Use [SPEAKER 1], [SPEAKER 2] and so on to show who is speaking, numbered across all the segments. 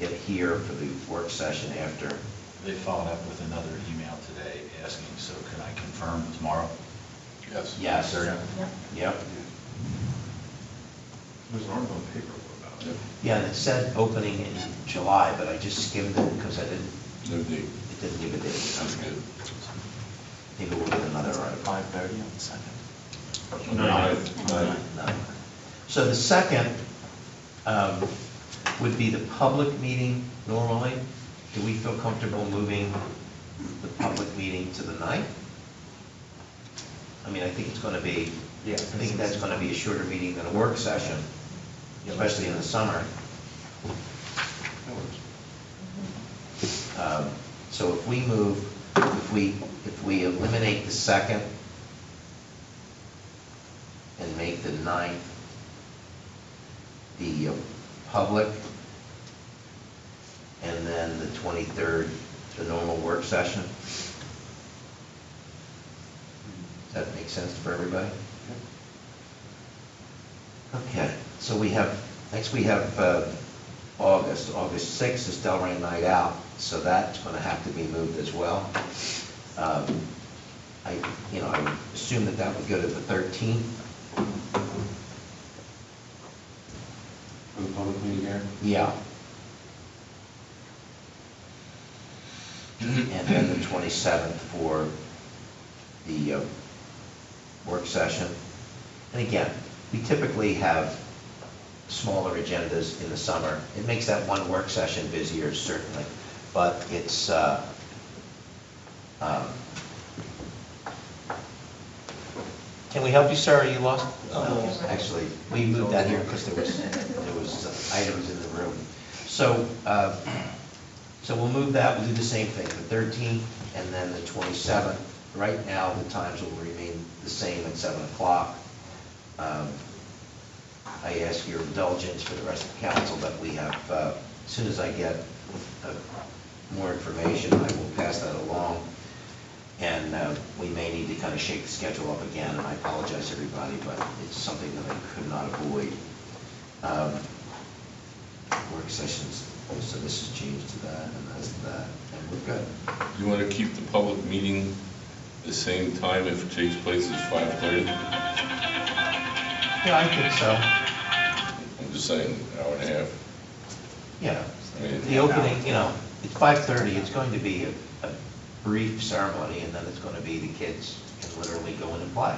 [SPEAKER 1] it here for the work session after.
[SPEAKER 2] They followed up with another email today asking, so can I confirm tomorrow?
[SPEAKER 3] Yes.
[SPEAKER 1] Yes.
[SPEAKER 3] There you
[SPEAKER 4] Yeah.
[SPEAKER 1] Yep.
[SPEAKER 3] There's an article in the paper about it.
[SPEAKER 1] Yeah, and it said opening in July, but I just skimmed it because I didn't,
[SPEAKER 3] No date.
[SPEAKER 1] it didn't give a
[SPEAKER 3] That's
[SPEAKER 1] date.
[SPEAKER 3] good.
[SPEAKER 1] Maybe we'll get another article.
[SPEAKER 5] Five thirty on the second.
[SPEAKER 3] Ninth. Ninth.
[SPEAKER 1] No. So the second um, would be the public meeting normally. Do we feel comfortable moving the public meeting to the ninth? I mean, I think it's going to be, I
[SPEAKER 5] Yeah.
[SPEAKER 1] think that's going to be a shorter meeting than a work session, especially in the summer. Um, So if we move, if we, if we eliminate the second and make the ninth the uh, public, and then the 23rd, the normal work session. Does that make sense for everybody? Okay, so we have, next we have uh, August. August 6th is Delray Night Out, so that's going to have to be moved as well. Um, I, you know, I would assume that that would go to the 13th.
[SPEAKER 6] For the public meeting here?
[SPEAKER 1] Yeah. And then the 27th for the uh, work session. And again, we typically have smaller agendas in the summer. It makes that one work session busier, certainly, but it's, uh, um, can we help you, sir? Are you lost?
[SPEAKER 4] No.
[SPEAKER 1] Actually, we moved that here because there was, there was uh, items in the room. So, uh, so we'll move that, we'll do the same thing, the 13th and then the 27th. Right now, the times will remain the same at 7 o'clock. Um, I ask your indulgence for the rest of the council that we have, uh, as soon as I get uh, more information, I will pass that along. And uh, we may need to kind of shake the schedule up again, and I apologize, everybody, but it's something that I could not avoid. Um, Work sessions, so this is changed to that, and that's that, and we're good.
[SPEAKER 3] You want to keep the public meeting the same time if it takes place at 5:30?
[SPEAKER 1] Yeah, I think so.
[SPEAKER 3] I'm just saying, an hour and a half.
[SPEAKER 1] Yeah,
[SPEAKER 3] I mean,
[SPEAKER 1] the opening, you know, it's 5:30, it's going to be a a brief ceremony, and then it's going to be the kids can literally go in and play.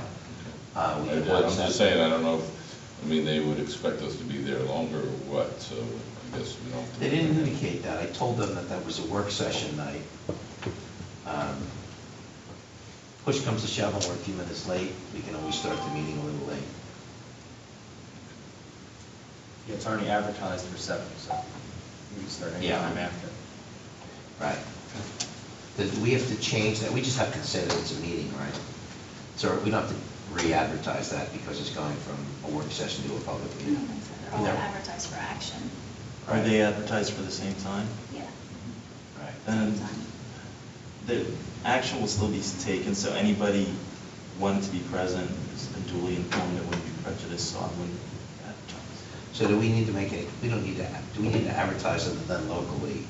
[SPEAKER 1] Uh,
[SPEAKER 3] I-
[SPEAKER 1] we
[SPEAKER 3] I'm
[SPEAKER 1] can watch that.
[SPEAKER 3] just saying, I don't know, if I mean, they would expect us to be there longer or what, so I guess we don't. have to-
[SPEAKER 1] They didn't indicate that. I told them that that was a work session night. Um, Push comes to shove, and we're a few minutes late. We can always start the meeting a little late.
[SPEAKER 5] Yeah, it's already advertised for seven, so we can start anytime
[SPEAKER 1] Yeah.
[SPEAKER 5] after.
[SPEAKER 1] Right. Does- we have to change that? We just have to say that it's a meeting, right? So we don't have to re-advertise that because it's going from a work session to a public
[SPEAKER 4] No,
[SPEAKER 1] meeting.
[SPEAKER 4] They're all
[SPEAKER 1] No.
[SPEAKER 4] advertised for action,
[SPEAKER 5] Are they advertised for the same time?
[SPEAKER 4] yeah.
[SPEAKER 1] Right.
[SPEAKER 5] And Um, the action will still be taken, so anybody wanting to be present is duly informed, it wouldn't be prejudiced, so I wouldn't advertise.
[SPEAKER 1] So do we need to make any, we don't need to, do we need to advertise other than locally,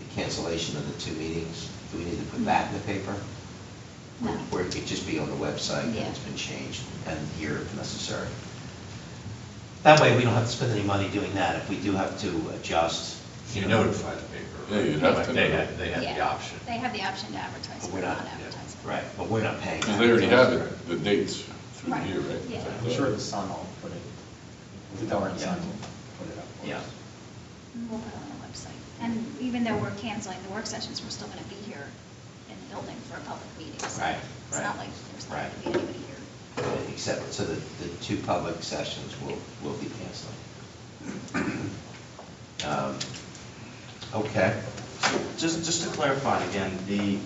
[SPEAKER 1] the cancellation of the two meetings? Do we need to put that in the paper?
[SPEAKER 4] No.
[SPEAKER 1] Or it could just be on the website that
[SPEAKER 4] Yeah.
[SPEAKER 1] it's been changed and here if necessary? That way, we don't have to spend any money doing that if we do have to adjust.
[SPEAKER 2] You notify the paper. right?
[SPEAKER 3] Yeah, you'd have to
[SPEAKER 2] They
[SPEAKER 3] know.
[SPEAKER 2] have, they have the
[SPEAKER 4] Yeah.
[SPEAKER 2] option.
[SPEAKER 4] They have the option to advertise,
[SPEAKER 1] But
[SPEAKER 4] but
[SPEAKER 1] we're
[SPEAKER 4] not
[SPEAKER 1] not,
[SPEAKER 4] advertise.
[SPEAKER 1] right, but we're not paying.
[SPEAKER 3] Because they already have it, the dates through
[SPEAKER 4] Right,
[SPEAKER 3] here, right?
[SPEAKER 4] yeah.
[SPEAKER 5] I'm sure the sun will put it, the Delran Sun will put it up for us.
[SPEAKER 1] Yeah.
[SPEAKER 4] We'll put it on the website. And even though we're canceling the work sessions, we're still going to be here in the building for a public meeting. so
[SPEAKER 1] Right,
[SPEAKER 4] It's
[SPEAKER 1] right,
[SPEAKER 4] not like there's not going
[SPEAKER 1] right.
[SPEAKER 4] to be anybody here.
[SPEAKER 1] Except, so the, the two public sessions will, will be canceled. Um, Okay,
[SPEAKER 5] Just, just to clarify again, the,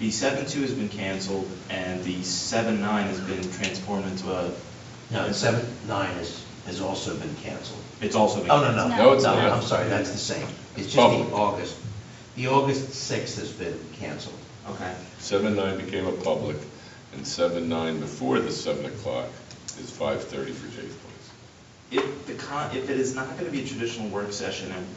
[SPEAKER 5] the seven-two has been canceled, and the seven-nine has been transformed into a.
[SPEAKER 1] no, and seven, nine is, has also been canceled.
[SPEAKER 5] It's also been.
[SPEAKER 1] Oh, no, no,
[SPEAKER 4] No.
[SPEAKER 1] no,
[SPEAKER 4] No, it's
[SPEAKER 3] not.
[SPEAKER 1] I'm sorry, that's the same. It's just the
[SPEAKER 3] Public.
[SPEAKER 1] August, the August sixth has been canceled.
[SPEAKER 5] Okay,
[SPEAKER 3] Seven nine became a public, and seven nine before the seven o'clock is five thirty for Jay's Place.
[SPEAKER 5] if the con, if it is not gonna be a traditional work session, and